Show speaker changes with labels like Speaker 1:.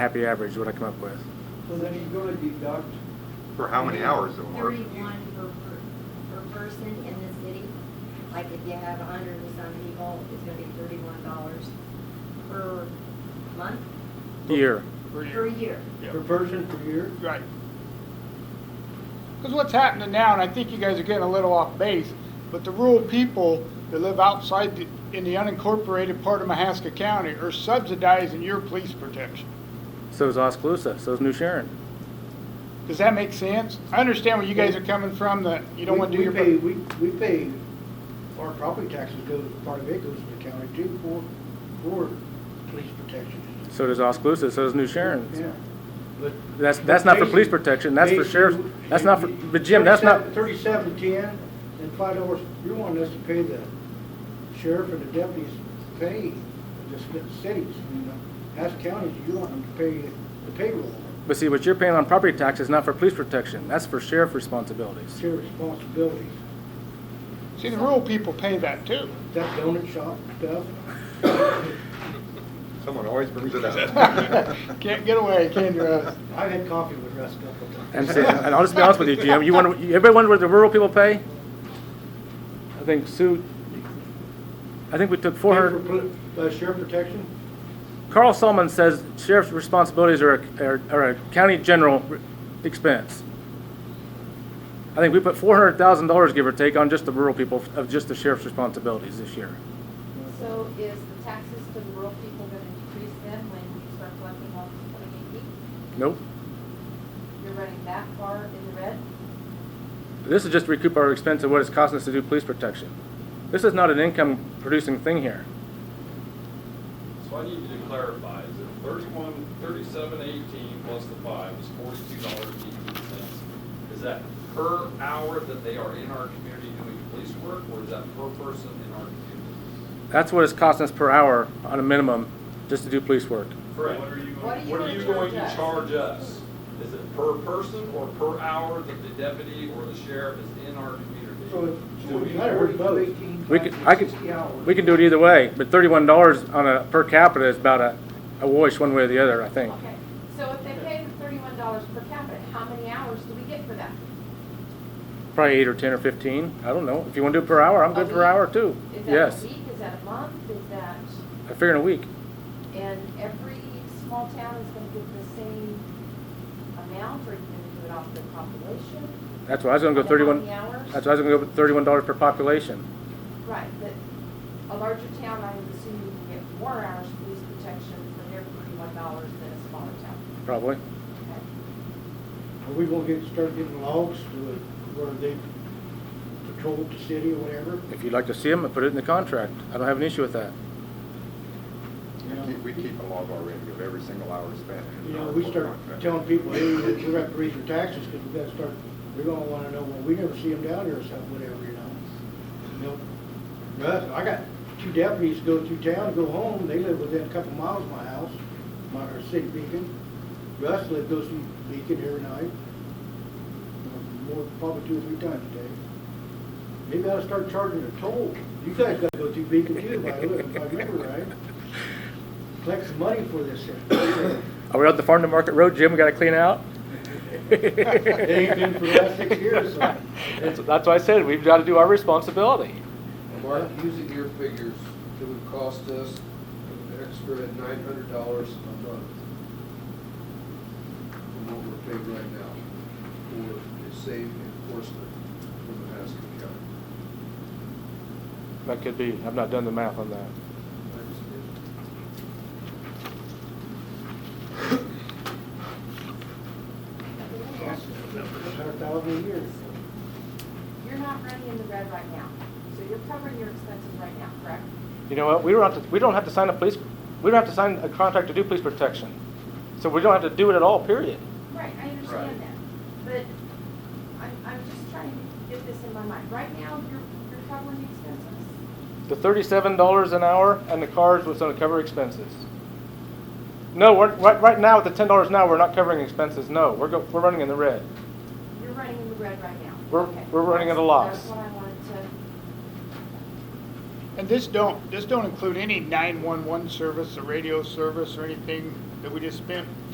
Speaker 1: happy average is what I come up with.
Speaker 2: So then you're gonna deduct,
Speaker 3: For how many hours of work?
Speaker 4: Thirty-one per, per, per person in the city. Like if you have a hundred and some people, it's gonna be thirty-one dollars per month,
Speaker 1: Year.
Speaker 5: per
Speaker 4: per
Speaker 5: year.
Speaker 4: year.
Speaker 5: Yeah.
Speaker 2: per person per year?
Speaker 5: Right. Because what's happening now, and I think you guys are getting a little off base, but the rural people that live outside the, in the unincorporated part of Mahaska County are subsidizing your police protection.
Speaker 1: So is Oskaloosa, so is New Sharon.
Speaker 5: Does that make sense? I understand where you guys are coming from, that you don't
Speaker 2: We-
Speaker 5: want to do
Speaker 2: we
Speaker 5: your.
Speaker 2: pay- We, we pay, our property taxes go, part of it goes to the county too for, for police protection.
Speaker 1: So does Oskaloosa, so does New Sharon.
Speaker 2: Yeah. But-
Speaker 1: That's, that's not for police
Speaker 2: Basically-
Speaker 1: protection, that's for sheriff's,
Speaker 2: basically,
Speaker 1: that's not for, but Jim, that's not,
Speaker 2: Thirty-seven, ten, and five dollars, you want us to pay the sheriff and the deputies pay of the ci- cities, you know? As counties, you want them to pay the payroll,
Speaker 1: but see, what you're paying on property tax is not for police protection, that's for sheriff responsibilities.
Speaker 2: it's your responsibilities.
Speaker 5: See, the rural people pay that too.
Speaker 2: That donut shop stuff,
Speaker 3: Someone always brings it up.
Speaker 5: Can't get away, can you, Russ?
Speaker 2: I've had coffee with Russ a couple times.
Speaker 1: And see, and I'll just be honest with you, Jim, you wonder, everybody wonder what the rural people pay? I think Sue, I think we took four
Speaker 2: For
Speaker 1: hundred,
Speaker 2: poli- uh, sheriff protection,
Speaker 1: Carl Solomon says sheriff's responsibilities are, a- are, are a county general expense. I think we put four hundred thousand dollars, give or take, on just the rural people, of just the sheriff's responsibilities this year.
Speaker 6: So is the taxes to the rural people gonna decrease then when you start collecting all this twenty eighty?
Speaker 1: Nope.
Speaker 6: You're running that far in the red?
Speaker 1: This is just to recoup our expense of what it's costing us to do police protection. This is not an income-producing thing here.
Speaker 7: So I need you to clarify, is it thirty-one, thirty-seven eighteen plus the five is forty-two dollars eighteen cents? Is that per hour that they are in our community doing police work, or is that per person in our community?
Speaker 1: That's what it's costing us per hour on a minimum, just to do police work.
Speaker 7: Correct.
Speaker 6: What are you
Speaker 7: What are
Speaker 6: gonna
Speaker 7: you going to
Speaker 6: charge us?
Speaker 7: charge us? Is it per person or per hour that the deputy or the sheriff is in our community?
Speaker 2: so it's,
Speaker 7: Do we-
Speaker 2: it's better, we both.
Speaker 1: We could, I could, we can do it either way, but thirty-one dollars on a, per capita is about a, a wash one way or the other, I think.
Speaker 6: Okay, so if they pay the thirty-one dollars per capita, how many hours do we get for that?
Speaker 1: Probably eight or ten or fifteen, I don't know. If you wanna do it per hour, I'm good per hour too.
Speaker 6: Is that
Speaker 1: Yes,
Speaker 6: a week, is that a month, is that,
Speaker 1: I figure in a week.
Speaker 6: and every small town is gonna get the same amount, or you can do it off the population?
Speaker 1: That's why I was gonna go
Speaker 6: And how many
Speaker 1: thirty-one,
Speaker 6: hours?
Speaker 1: that's why I was gonna go with thirty-one dollars per population.
Speaker 6: Right, but a larger town, I would assume you can get more hours of police protection for their thirty-one dollars than a smaller town.
Speaker 1: Probably.
Speaker 6: Okay.
Speaker 2: Are we gonna get, start getting logs to where they patrol the city or whatever?
Speaker 1: If you'd like to see them, I put it in the contract. I don't have an issue with that.
Speaker 3: We keep- We keep a log already of every single hour spent. in
Speaker 2: You
Speaker 3: our
Speaker 2: know, we
Speaker 3: work
Speaker 2: start
Speaker 3: contract.
Speaker 2: telling people, hey, you have to raise your taxes, because we gotta start, we're gonna wanna know, well, we never see them down here or something, whatever, you know? You know, Russ, I got two deputies go through town, go home, they live within a couple miles of my house, my, or city beacon. Russ lives, goes through Beacon every night, more, probably two or three times a day. Maybe I ought to start charging a toll. You guys gotta go through Beacon too, if I live, if I remember right. Collect some money for this thing.
Speaker 1: Are we out the farm to market road, Jim? We gotta clean out?
Speaker 2: It ain't been for the last six years, so.
Speaker 1: That's, that's why I said, we've gotta do our responsibility.
Speaker 8: Mark, using your figures, it would cost us an extra nine hundred dollars a month from what we're paying right now for the safe enforcement from Mahaska County.
Speaker 1: That could be. I've not done the math on that.
Speaker 8: I understand.
Speaker 2: Hundred thousand a year.
Speaker 6: You're not running in the red right now, so you're covering your expenses right now, correct?
Speaker 1: You know what? We don't have to, we don't have to sign a police, we don't have to sign a contract to do police protection. So we don't have to do it at all, period.
Speaker 6: Right, I understand that, but I'm, I'm just trying to get this in my mind. Right now, you're, you're covering the expenses.
Speaker 1: The thirty-seven dollars an hour and the cars was gonna cover expenses. No, we're, right, right now, at the ten dollars an hour, we're not covering expenses, no. We're go, we're running in the red.
Speaker 6: You're running in the red right now.
Speaker 1: We're-
Speaker 6: Okay.
Speaker 1: we're running at a
Speaker 6: That's-
Speaker 1: loss.
Speaker 6: That's what I wanted to,
Speaker 5: And this don't, this don't include any nine-one-one service, or radio service, or anything that we just spent